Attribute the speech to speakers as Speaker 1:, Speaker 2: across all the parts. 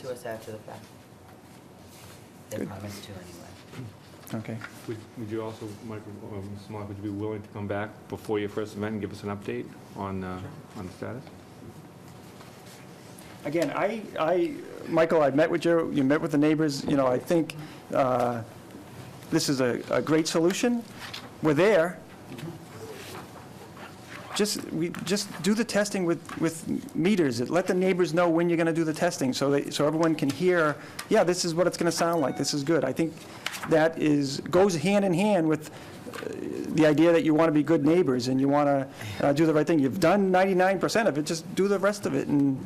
Speaker 1: to us after the fact. They promised to anyway.
Speaker 2: Okay.
Speaker 3: Would would you also, Michael, um, Mrs. Mock, would you be willing to come back before your first event and give us an update on, uh, on the status?
Speaker 2: Again, I, I, Michael, I met with you, you met with the neighbors, you know, I think uh, this is a, a great solution. We're there. Just, we, just do the testing with, with meters. Let the neighbors know when you're going to do the testing, so that, so everyone can hear, yeah, this is what it's going to sound like, this is good. I think that is, goes hand in hand with uh, the idea that you want to be good neighbors and you want to do the right thing. You've done 99% of it, just do the rest of it, and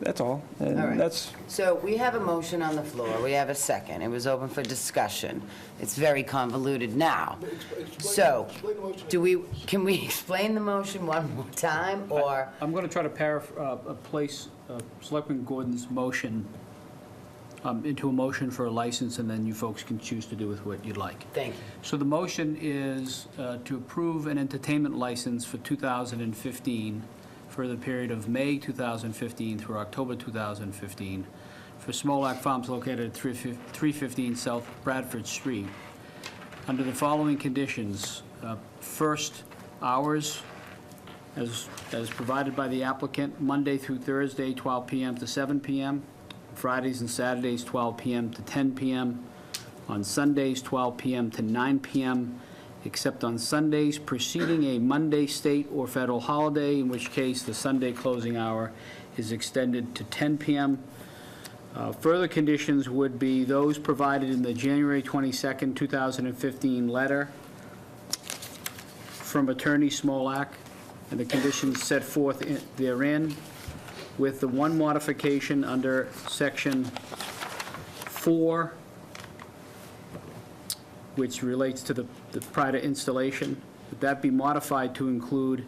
Speaker 2: that's all. And
Speaker 1: All right.
Speaker 2: that's,
Speaker 1: So we have a motion on the floor, we have a second, it was open for discussion. It's very convoluted now. So, do we, can we explain the motion one more time, or,
Speaker 4: I'm going to try to paraphr, uh, uh, place uh, Selectman Gordon's motion um, into a motion for a license, and then you folks can choose to do with what you'd like.
Speaker 1: thank you,
Speaker 4: So the motion is uh, to approve an entertainment license for 2015 for the period of May 2015 through October 2015 for Smolak Farms located at 315 South Bradford Street, under the following conditions. Uh, First, hours, as, as provided by the applicant, Monday through Thursday, 12 PM to 7 PM, Fridays and Saturdays, 12 PM to 10 PM, on Sundays, 12 PM to 9 PM, except on Sundays preceding a Monday state or federal holiday, in which case the Sunday closing hour is extended to 10 PM. Uh, Further conditions would be those provided in the January 22nd, 2015 letter from Attorney Smolak and the conditions set forth in- therein, with the one modification under Section 4, which relates to the the prior to installation. Would that be modified to include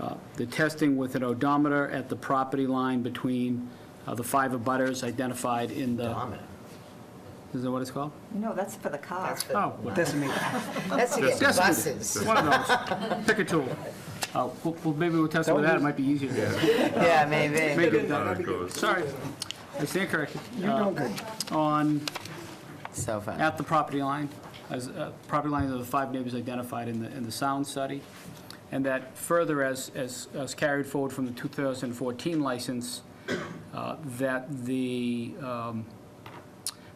Speaker 4: uh, the testing with an odometer at the property line between uh, the five abutters identified in the,
Speaker 1: Dominic?
Speaker 4: is that what it's called?
Speaker 5: No, that's for the car.
Speaker 1: That's the-
Speaker 4: Oh, well, decimated.
Speaker 1: That's to get
Speaker 4: Decimated.
Speaker 1: buses.
Speaker 4: One of those. Pick a tool. Uh, Well, well, maybe we'll test it with that, it might be easier.
Speaker 1: Yeah, maybe.
Speaker 4: Make it- Sorry, I stand corrected. You're doing good. On,
Speaker 1: So fun.
Speaker 4: at the property line, as, uh, property lines of the five neighbors identified in the, in the sound study, and that further as, as as carried forward from the 2014 license, uh, that the, um,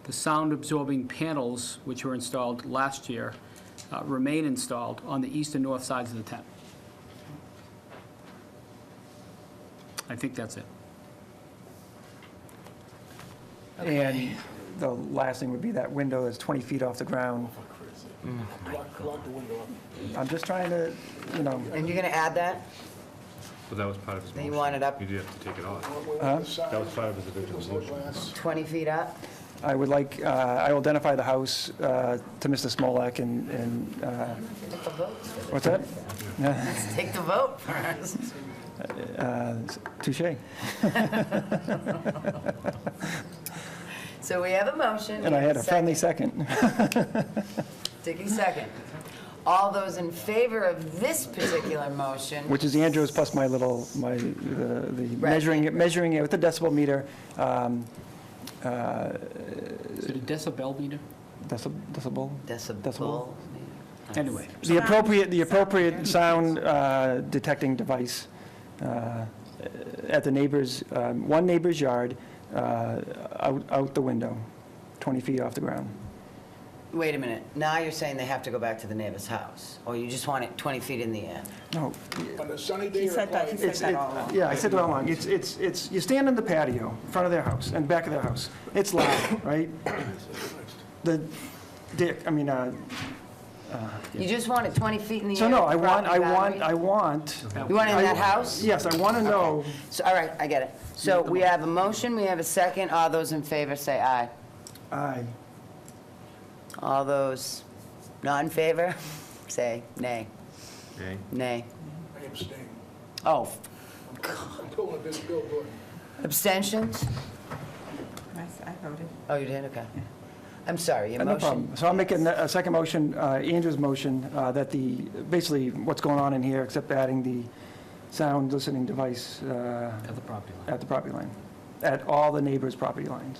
Speaker 4: the sound-absorbing panels, which were installed last year, uh, remain installed on the east and north sides of the tent. I think that's it.
Speaker 2: and the last thing would be that window that's 20 feet off the ground. I'm just trying to, you know,
Speaker 1: And you're gonna add that?
Speaker 3: Well, that was part of his
Speaker 1: Then
Speaker 3: motion.
Speaker 1: you want it up-
Speaker 3: You did have to take it off.
Speaker 2: Huh?
Speaker 3: That was part of his original motion.
Speaker 1: 20 feet up?
Speaker 2: I would like, uh, I will identify the house uh, to Mr. Smolak and, and, uh,
Speaker 1: Take the vote.
Speaker 2: what's that?
Speaker 1: Let's take the vote first.
Speaker 2: Uh, Touche.
Speaker 1: So we have a motion.
Speaker 2: And I had a
Speaker 1: second.
Speaker 2: friendly second.
Speaker 1: Dickey second. All those in favor of this particular motion?
Speaker 2: Which is Andrew's plus my little, my, the the
Speaker 1: Right.
Speaker 2: measuring, it measuring it with the decibel meter, um,
Speaker 4: Is it a decibel meter?
Speaker 2: deci- decibel?
Speaker 1: Decibel.
Speaker 2: Decibel.
Speaker 4: Anyway.
Speaker 2: The appropriate, the appropriate sound uh, detecting device uh, at the neighbor's, um, one neighbor's yard, uh, out, out the window, 20 feet off the ground.
Speaker 1: Wait a minute, now you're saying they have to go back to the neighbor's house, or you just want it 20 feet in the air?
Speaker 2: No,
Speaker 6: On a sunny day
Speaker 5: He
Speaker 6: or a
Speaker 5: said that,
Speaker 6: cloudy
Speaker 5: he
Speaker 6: day,
Speaker 5: said
Speaker 2: It's,
Speaker 5: that
Speaker 2: it-
Speaker 5: all along.
Speaker 2: yeah, I said it all along. It's, it's, it's, you stand in the patio, in front of their house, and back of their house. It's loud, right? The, Dick, I mean, uh,
Speaker 1: You just want it 20 feet in the air?
Speaker 2: so no,
Speaker 1: at
Speaker 2: I
Speaker 1: the
Speaker 2: want, I
Speaker 1: property
Speaker 2: want, I
Speaker 1: boundary?
Speaker 2: want.
Speaker 1: You want it in
Speaker 2: I-
Speaker 1: that house?
Speaker 2: Yes, I want to know,
Speaker 1: So, all right, I get it. So we have a motion, we have a second, all those in favor say aye.
Speaker 2: aye.
Speaker 1: All those not in favor, say nay,
Speaker 3: Okay.
Speaker 1: nay.
Speaker 6: I abstain.
Speaker 1: Oh,
Speaker 6: I'm pulling this billboard.
Speaker 1: abstentions?
Speaker 5: I I voted.
Speaker 1: Oh, you did, okay. I'm sorry, your
Speaker 2: No
Speaker 1: motion.
Speaker 2: problem. So I'll make a a second motion, uh, Andrew's motion, uh, that the, basically what's going on in here, except adding the sound listening device uh,
Speaker 4: At the property line.
Speaker 2: at the property line. at all the neighbors' property lines.